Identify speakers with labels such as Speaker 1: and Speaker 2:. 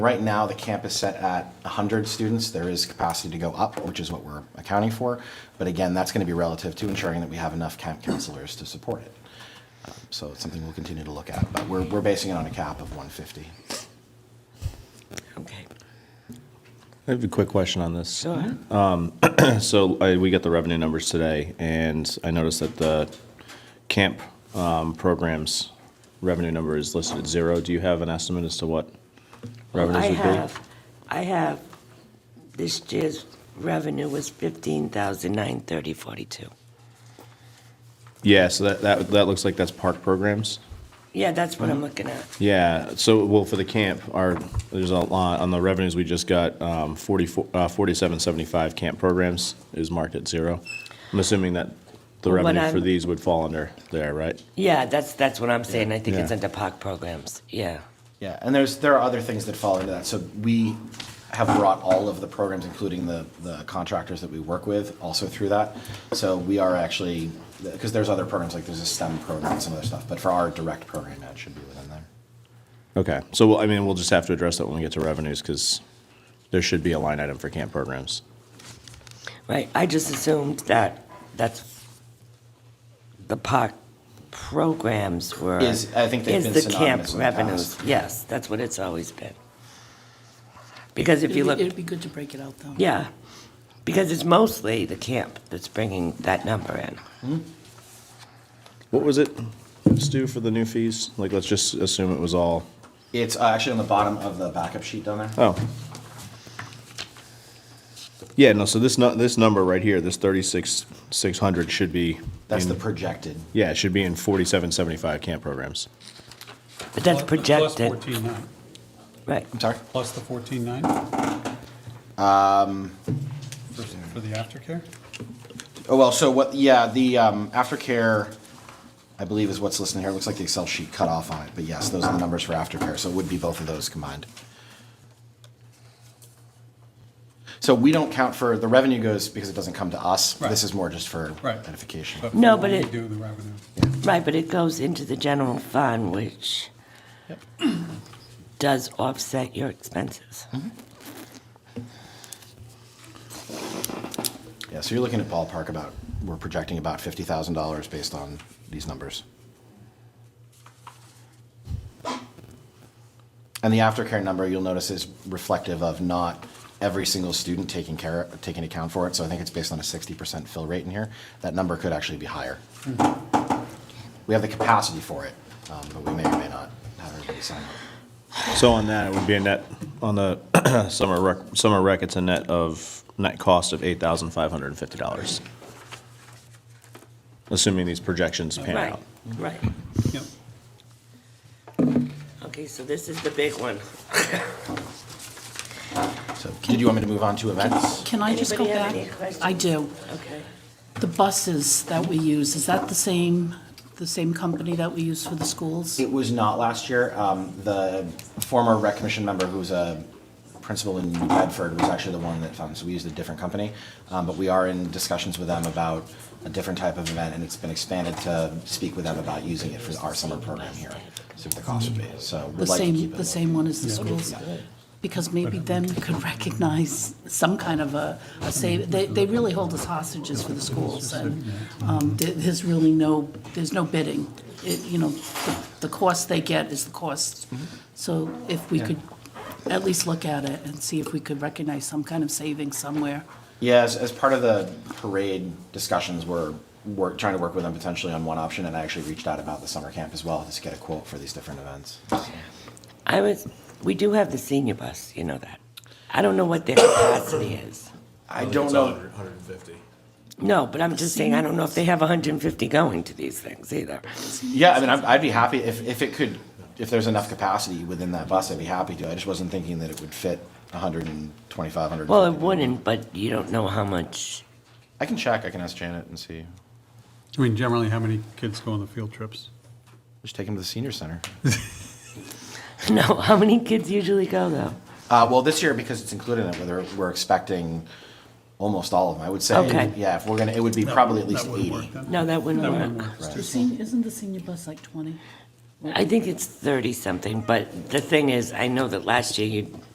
Speaker 1: Right now, the camp is set at 100 students. There is capacity to go up, which is what we're accounting for. But again, that's going to be relative to ensuring that we have enough camp counselors to support it. Um, So it's something we'll continue to look at, but we're, we're basing it on a cap of 150.
Speaker 2: Okay.
Speaker 3: I have a quick question on this.
Speaker 2: Go ahead.
Speaker 3: So I, we got the revenue numbers today, and I noticed that the camp um, programs revenue number is listed at zero. Do you have an estimate as to what revenues
Speaker 2: I
Speaker 3: would be?
Speaker 2: have, I have, this year's revenue was fifteen thousand nine thirty forty-two.
Speaker 3: Yeah, so that, that that looks like that's park programs.
Speaker 2: Yeah, that's what I'm looking at.
Speaker 3: Yeah. So well, for the camp, our there's a lot on the revenues we just got. Um, 44, uh, 4775 camp programs is marked at zero. I'm assuming that the
Speaker 2: Well, what
Speaker 3: revenue for
Speaker 2: I'm-
Speaker 3: these would fall under there, right?
Speaker 2: Yeah, that's, that's what I'm saying. I think it's
Speaker 3: Yeah.
Speaker 2: under park programs. Yeah.
Speaker 1: Yeah, and there's, there are other things that fall into that. So we have brought all of the programs, including the, the contractors that we work with, also through that. So we are actually, because there's other programs, like there's a STEM program and some other stuff, but for our direct program, that should be within there.
Speaker 3: Okay, so well, I mean, we'll just have to address that when we get to revenues, because there should be a line item for camp programs.
Speaker 2: Right, I just assumed that that's, the park programs were.
Speaker 1: Is- I think they've
Speaker 2: is
Speaker 1: been
Speaker 2: the camp
Speaker 1: synonymous in the
Speaker 2: revenues.
Speaker 1: past.
Speaker 2: Yes, that's what it's always been. Because if
Speaker 4: It'd
Speaker 2: you
Speaker 4: be-
Speaker 2: look,
Speaker 4: It'd be good to break it out, though.
Speaker 2: yeah, because it's mostly the camp that's bringing that number in.
Speaker 3: What was it, Stu, for the new fees? Like, let's just assume it was all,
Speaker 1: It's uh, actually on the bottom of the backup sheet down there.
Speaker 3: oh. Yeah, no, so this, nu- this number right here, this thirty-six, six hundred should be.
Speaker 1: That's the
Speaker 3: in-
Speaker 1: projected.
Speaker 3: Yeah, it should be in forty-seven, seventy-five camp programs.
Speaker 2: But that's
Speaker 5: Plus-
Speaker 2: projected,
Speaker 5: Plus 14.9,
Speaker 2: right.
Speaker 1: I'm sorry?
Speaker 5: plus the 14.9?
Speaker 1: Um,
Speaker 5: For for the aftercare?
Speaker 1: Oh, well, so what, yeah, the um, aftercare, I believe is what's listed here. It looks like the Excel sheet cut off on it, but yes, those are the numbers for aftercare, so it would be both of those combined. So we don't count for, the revenue goes because it doesn't come to us. This
Speaker 5: Right.
Speaker 1: is more just for
Speaker 5: Right.
Speaker 1: identification.
Speaker 5: But
Speaker 2: No, but
Speaker 5: we
Speaker 2: it-
Speaker 5: do the revenue.
Speaker 2: Right, but it goes into the general fund, which does offset your expenses.
Speaker 1: Yeah, so you're looking at ballpark about, we're projecting about $50,000 based on these numbers. And the aftercare number, you'll notice is reflective of not every single student taking care, taking account for it. So I think it's based on a 60% fill rate in here. That number could actually be higher. We have the capacity for it, um, but we may or may not have everybody sign up.
Speaker 3: So on that, it would be a net, on the summer rec, summer rec, it's a net of, net cost of eight thousand five hundred and fifty dollars. Assuming these projections pan
Speaker 2: Right,
Speaker 3: out.
Speaker 2: right.
Speaker 5: Yep.
Speaker 2: Okay, so this is the big one.
Speaker 1: So did you want me to move on to events?
Speaker 4: Can I just go
Speaker 2: Anybody
Speaker 4: back?
Speaker 2: have any questions?
Speaker 4: I do.
Speaker 2: Okay.
Speaker 4: The buses that we use, is that the same, the same company that we use for the schools?
Speaker 1: It was not last year. Um, the former rec commission member who was a principal in New Bedford was actually the one that found, so we used a different company. Um, but we are in discussions with them about a different type of event and it's been expanded to speak with them about using it for our summer program here. See what the cost would be. So
Speaker 4: The
Speaker 1: we'd like to
Speaker 4: same,
Speaker 1: keep it.
Speaker 4: the same one as the schools? Because maybe then we could recognize some kind of a, a save, they, they really hold us hostages for the schools, and, um, there- there's really no, there's no bidding. It, you know, the, the cost they get is the cost. So if we could at least look at it and see if we could recognize some kind of savings somewhere.
Speaker 1: Yeah, as, as part of the parade discussions, we're, we're trying to work with them potentially on one option and I actually reached out about the summer camp as well, just to get a quote for these different events.
Speaker 2: I was, we do have the senior bus, you know that. I don't know what their capacity is.
Speaker 1: I don't know.
Speaker 2: No, but I'm just saying, I don't know if they have 150 going to these things either.
Speaker 1: Yeah, I mean, I'm- I'd be happy if, if it could, if there's enough capacity within that bus, I'd be happy to. I just wasn't thinking that it would fit 125, 150.
Speaker 2: Well, it wouldn't, but you don't know how much.
Speaker 1: I can check, I can ask Janet and see.
Speaker 5: I mean, generally, how many kids go on the field trips?
Speaker 1: Just take him to the senior center.
Speaker 2: No, how many kids usually go though?
Speaker 1: Uh, well, this year, because it's included in it, whether we're expecting almost all of them, I would say.
Speaker 2: Okay.
Speaker 1: Yeah, if we're gonna, it would be probably at least 80.
Speaker 2: No, that wouldn't
Speaker 5: That wouldn't
Speaker 2: work.
Speaker 5: work.
Speaker 1: Right.
Speaker 4: The senior, isn't the senior bus like 20?
Speaker 2: I think it's 30 something, but the thing is, I know that last year you